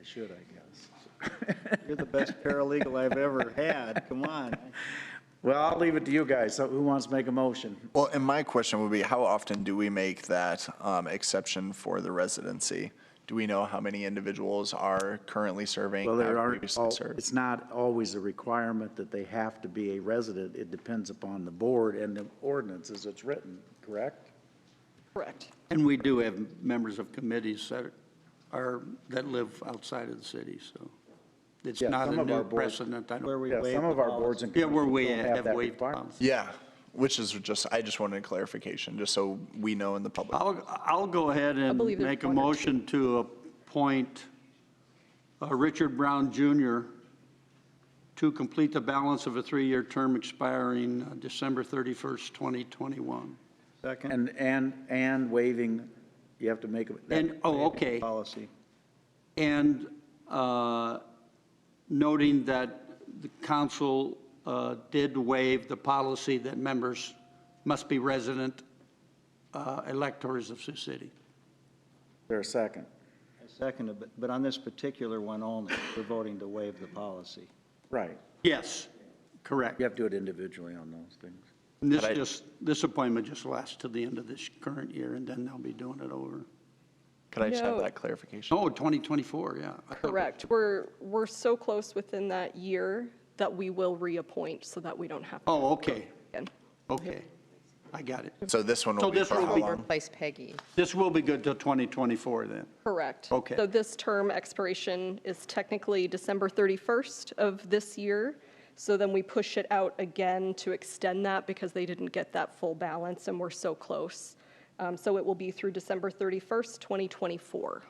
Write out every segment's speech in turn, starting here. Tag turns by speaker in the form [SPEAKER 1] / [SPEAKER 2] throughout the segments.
[SPEAKER 1] I should, I guess.
[SPEAKER 2] You're the best paralegal I've ever had, come on.
[SPEAKER 1] Well, I'll leave it to you guys. So who wants to make a motion?
[SPEAKER 3] Well, and my question would be, how often do we make that um, exception for the residency? Do we know how many individuals are currently serving?
[SPEAKER 1] Well, there
[SPEAKER 3] have
[SPEAKER 1] are,
[SPEAKER 3] previously served?
[SPEAKER 1] it's not always a requirement that they have to be a resident. It depends upon the board and the ordinance as it's written, correct?
[SPEAKER 4] Correct.
[SPEAKER 5] And we do have members of committees that are, that live outside of the city, so it's
[SPEAKER 1] Yeah,
[SPEAKER 5] not
[SPEAKER 1] some
[SPEAKER 5] a
[SPEAKER 1] of our
[SPEAKER 5] new
[SPEAKER 1] boards-
[SPEAKER 5] precedent. I don't-
[SPEAKER 2] Where we
[SPEAKER 1] Yeah,
[SPEAKER 2] waive
[SPEAKER 1] some
[SPEAKER 2] the
[SPEAKER 1] of our
[SPEAKER 2] policy.
[SPEAKER 1] boards and
[SPEAKER 5] Yeah, where we
[SPEAKER 1] committees don't
[SPEAKER 5] have
[SPEAKER 1] that
[SPEAKER 5] waived
[SPEAKER 1] requirement.
[SPEAKER 5] policy.
[SPEAKER 3] Yeah, which is just, I just wanted clarification, just so we know in the public.
[SPEAKER 5] I'll, I'll go ahead and
[SPEAKER 4] believe there's
[SPEAKER 5] make a
[SPEAKER 4] one or two.
[SPEAKER 5] motion to appoint uh, Richard Brown Jr. to complete the balance of a three-year term expiring uh, December 31st, 2021.
[SPEAKER 2] Second,
[SPEAKER 1] And, and, and waiving, you have to make. a-
[SPEAKER 5] And, oh, okay.
[SPEAKER 2] policy.
[SPEAKER 5] And uh, noting that the council uh, did waive the policy that members must be resident uh, electors of Sioux City.
[SPEAKER 1] There a second?
[SPEAKER 2] Second, but, but on this particular one only, we're voting to waive the policy.
[SPEAKER 1] Right.
[SPEAKER 5] Yes, correct.
[SPEAKER 1] You have to do it individually on those things.
[SPEAKER 5] And This just, this appointment just lasts to the end of this current year, and then they'll be doing it over.
[SPEAKER 3] Could I just have
[SPEAKER 4] No.
[SPEAKER 3] that clarification?
[SPEAKER 5] Oh, 2024, yeah. I thought-
[SPEAKER 4] Correct. We're, we're so close within that year that we will reappoint so that we don't have. to
[SPEAKER 5] Oh, okay,
[SPEAKER 4] again.
[SPEAKER 5] okay. I got it.
[SPEAKER 3] So this one
[SPEAKER 5] So
[SPEAKER 3] will be
[SPEAKER 5] this
[SPEAKER 3] for
[SPEAKER 5] one
[SPEAKER 3] how
[SPEAKER 5] will be-
[SPEAKER 3] long?
[SPEAKER 6] Replace Peggy.
[SPEAKER 5] This will be good till 2024 then.
[SPEAKER 4] Correct.
[SPEAKER 5] Okay.
[SPEAKER 4] So this term expiration is technically December 31st of this year. So then we push it out again to extend that because they didn't get that full balance and we're so close. Um, So it will be through December 31st, 2024.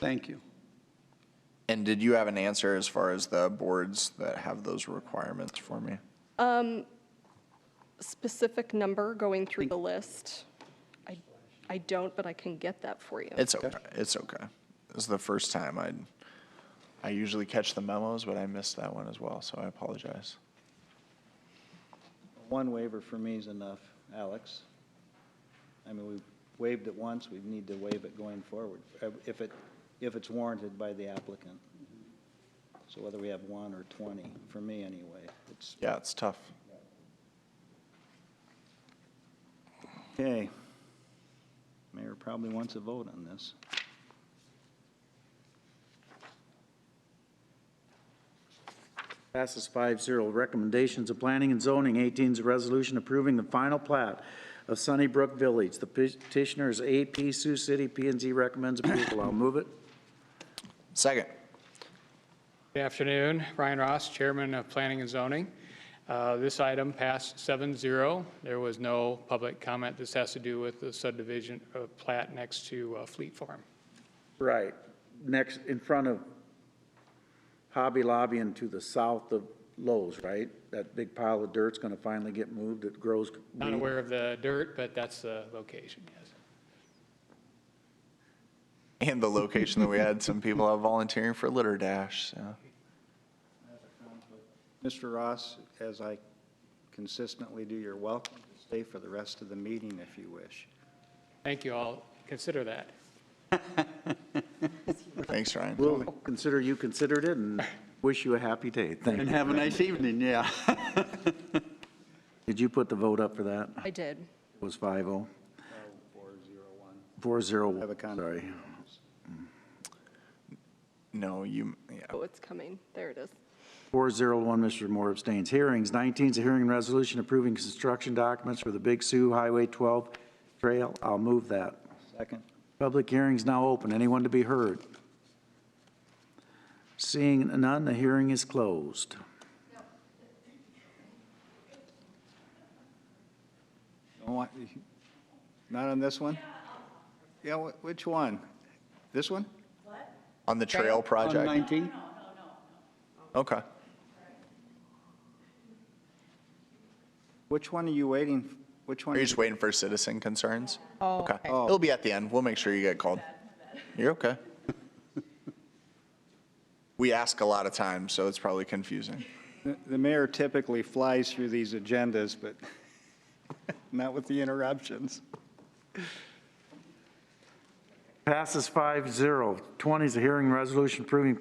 [SPEAKER 5] Thank you.
[SPEAKER 3] And did you have an answer as far as the boards that have those requirements for me?
[SPEAKER 4] Specific number going through the list, I, I don't, but I can get that for you.
[SPEAKER 3] It's okay, it's okay. This is the first time I, I usually catch the memos, but I missed that one as well, so I apologize.
[SPEAKER 2] One waiver for me is enough, Alex. I mean, we waived it once, we need to waive it going forward, uh, if it, if it's warranted by the applicant. So whether we have one or 20, for me anyway, it's,
[SPEAKER 3] Yeah, it's tough.
[SPEAKER 2] okay. Mayor probably wants a vote on this.
[SPEAKER 1] Passes 5-0. Recommendations of Planning and Zoning, 18 is a resolution approving the final plat of Sunnybrook Village. The petitioner is AP Sioux City, p and Z recommends approval. I'll move it.
[SPEAKER 3] Second,
[SPEAKER 7] Good afternoon, Brian Ross, Chairman of Planning and Zoning. Uh, This item passed 7-0. There was no public comment. This has to do with the subdivision of plat next to uh, Fleet Farm.
[SPEAKER 1] Right. Next, in front of Hobby Lobby and to the south of Lowe's, right? That big pile of dirt's going to finally get moved. It grows.
[SPEAKER 7] Not aware of the dirt, but that's the location, yes.
[SPEAKER 3] and the location that we had some people out volunteering for litter dash, so.
[SPEAKER 2] Mr. Ross, as I consistently do, you're welcome to stay for the rest of the meeting if you wish.
[SPEAKER 7] Thank you all. Consider that.
[SPEAKER 3] Thanks, Ryan.
[SPEAKER 1] We'll consider you considered it and wish you a happy day. Thank
[SPEAKER 5] And
[SPEAKER 1] you.
[SPEAKER 5] have a nice evening, yeah.
[SPEAKER 1] Did you put the vote up for that?
[SPEAKER 4] I did.
[SPEAKER 1] It was oh. 5-0.
[SPEAKER 2] Oh,
[SPEAKER 1] 4-0,
[SPEAKER 2] Have a con-
[SPEAKER 1] sorry.
[SPEAKER 3] No, you, yeah.
[SPEAKER 4] Oh, it's coming. There it is.
[SPEAKER 1] 401, Mr. Moore abstains. Hearings, 19 is a hearing and resolution approving construction documents for the Big Sioux Highway 12 Trail. I'll move that.
[SPEAKER 2] Second?
[SPEAKER 1] Public hearing's now open. Anyone to be heard? Seeing none, the hearing is closed.
[SPEAKER 2] Don't want- Not on this one? Yeah, wh- which one? This one?
[SPEAKER 3] On the trail
[SPEAKER 5] On
[SPEAKER 3] project?
[SPEAKER 5] 19?
[SPEAKER 3] Okay.
[SPEAKER 2] Which one are you waiting, f- which
[SPEAKER 3] Are
[SPEAKER 2] one?
[SPEAKER 3] you just waiting for citizen concerns?
[SPEAKER 6] Oh,
[SPEAKER 3] Okay.
[SPEAKER 6] okay.
[SPEAKER 3] It'll be at the end. We'll make sure you get called. You're okay. We ask a lot of times, so it's probably confusing.
[SPEAKER 2] The- The mayor typically flies through these agendas, but not with the interruptions.
[SPEAKER 1] Passes 5-0. 20 is a hearing and resolution approving